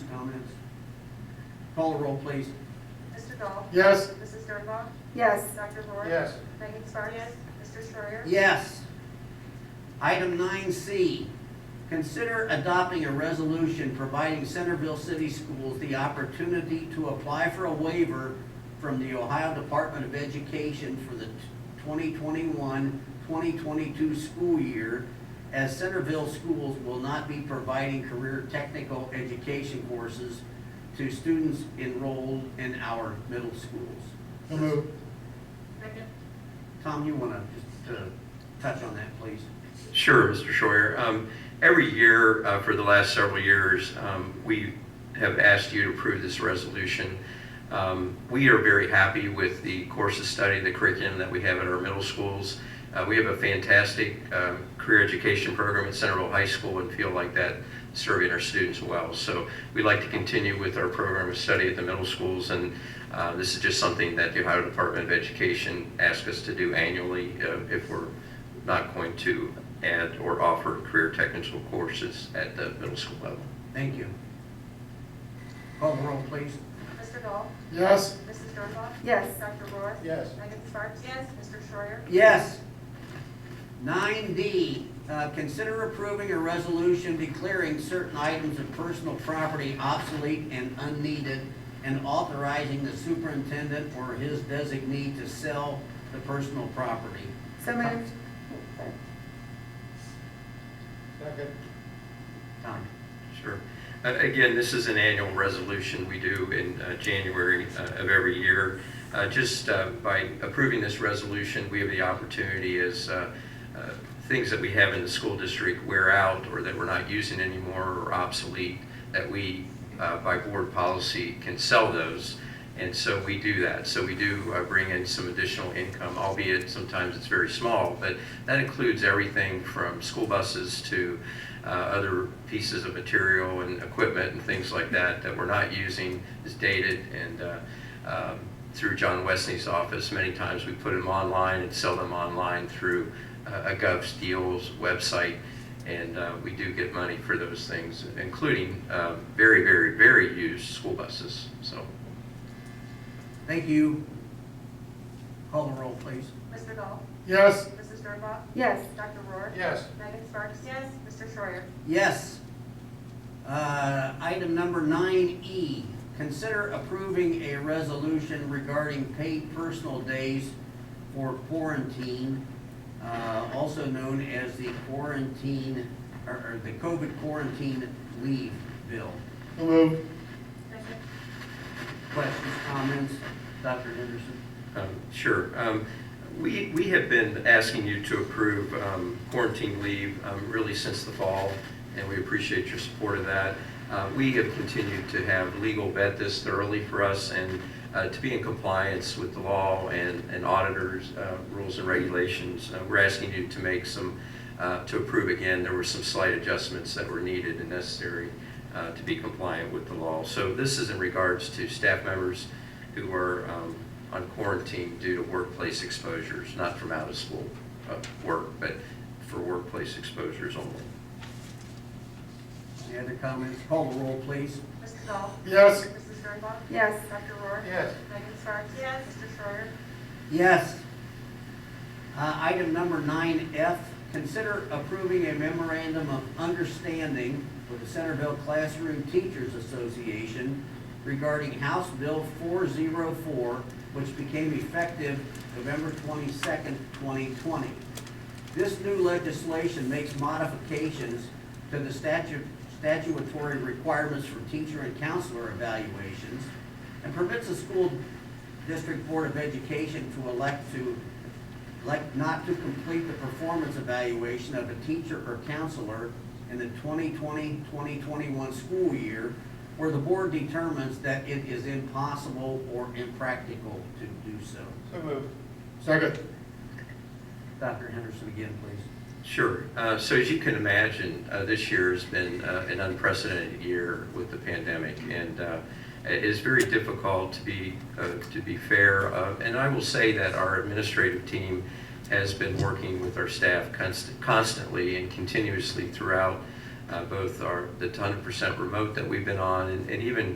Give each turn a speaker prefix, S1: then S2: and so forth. S1: comments. Call the roll, please.
S2: Mr. Dahl?
S3: Yes.
S2: Mrs. Sternbach?
S4: Yes.
S2: Dr. Rohr?
S3: Yes.
S2: Megan Sparks? Mr. Schreier?
S1: Yes. Item nine C, consider adopting a resolution providing Centerville City Schools the opportunity to apply for a waiver from the Ohio Department of Education for the 2021-2022 school year, as Centerville schools will not be providing career technical education courses to students enrolled in our middle schools.
S3: So move.
S2: Second.
S1: Tom, you want to just uh, touch on that, please?
S5: Sure, Mr. Scheuer. Um, Every year, uh, for the last several years, um, we have asked you to approve this resolution. Um, We are very happy with the course of study, the curriculum that we have at our middle schools. Uh, We have a fantastic um, career education program at Centerville High School and feel like that serving our students well. So we'd like to continue with our program of study at the middle schools, and uh, this is just something that the Ohio Department of Education asks us to do annually uh, if we're not going to add or offer career technical courses at the middle school level.
S1: Thank you. Call the roll, please.
S2: Mr. Dahl?
S3: Yes.
S2: Mrs. Sternbach?
S4: Yes.
S2: Dr. Rohr?
S3: Yes.
S2: Megan Sparks? Yes. Mr. Schreier?
S1: Yes. Nine D, uh, consider approving a resolution declaring certain items of personal property obsolete and unneeded and authorizing the superintendent or his designee to sell the personal property.
S4: So moved.
S3: Second.
S1: Tom?
S5: Sure. Uh, Again, this is an annual resolution we do in uh, January uh, of every year. Uh, Just uh, by approving this resolution, we have the opportunity as uh, uh, things that we have in the school district wear out or that we're not using anymore or obsolete, that we, uh, by board policy, can sell those. And so we do that. So we do uh, bring in some additional income, albeit sometimes it's very small, but that includes everything from school buses to uh, other pieces of material and equipment and things like that that we're not using is dated. And uh, um, through John Wesley's office, many times we put them online and sell them online through uh, a Gov's Deals website. And uh, we do get money for those things, including uh, very, very, very used school buses. So
S1: Thank you. Call the roll, please.
S2: Mr. Dahl?
S3: Yes.
S2: Mrs. Sternbach?
S4: Yes.
S2: Dr. Rohr?
S3: Yes.
S2: Megan Sparks? Yes. Mr. Schreier?
S1: Yes. Uh, Item number nine E, consider approving a resolution regarding paid personal days for quarantine, uh, also known as the quarantine, or- or the COVID quarantine leave bill.
S3: So move.
S2: Second.
S1: Questions, comments? Dr. Henderson?
S5: Um, Sure. Um, We, we have been asking you to approve um, quarantine leave um, really since the fall, and we appreciate your support of that. Uh, We have continued to have legal vet this thoroughly for us and uh, to be in compliance with the law and and auditors' uh, rules and regulations. Uh, We're asking you to make some, uh, to approve again. There were some slight adjustments that were needed and necessary uh, to be compliant with the law. So this is in regards to staff members who are um, on quarantine due to workplace exposures, not from out of school uh, work, but for workplace exposures only.
S1: Any other comments? Call the roll, please.
S2: Mr. Dahl?
S3: Yes.
S2: Mrs. Sternbach?
S4: Yes.
S2: Dr. Rohr?
S3: Yes.
S2: Megan Sparks? Yes. Mr. Schreier?
S1: Yes. Uh, Item number nine F, consider approving a memorandum of understanding with the Centerville Classroom Teachers Association regarding House Bill 404, which became effective November 22nd, 2020. This new legislation makes modifications to the statu- statutory requirements for teacher and counselor evaluations and permits the school district board of education to elect to, elect not to complete the performance evaluation of a teacher or counselor in the 2020, 2021 school year where the board determines that it is impossible or impractical to do so.
S3: So move. Second.
S1: Dr. Henderson again, please.
S5: Sure. Uh, So as you can imagine, uh, this year has been uh, an unprecedented year with the pandemic, and uh, it is very difficult to be, uh, to be fair. Uh, And I will say that our administrative team has been working with our staff const- constantly and continuously throughout uh, uh, both our, the 100% remote that we've been on, and and even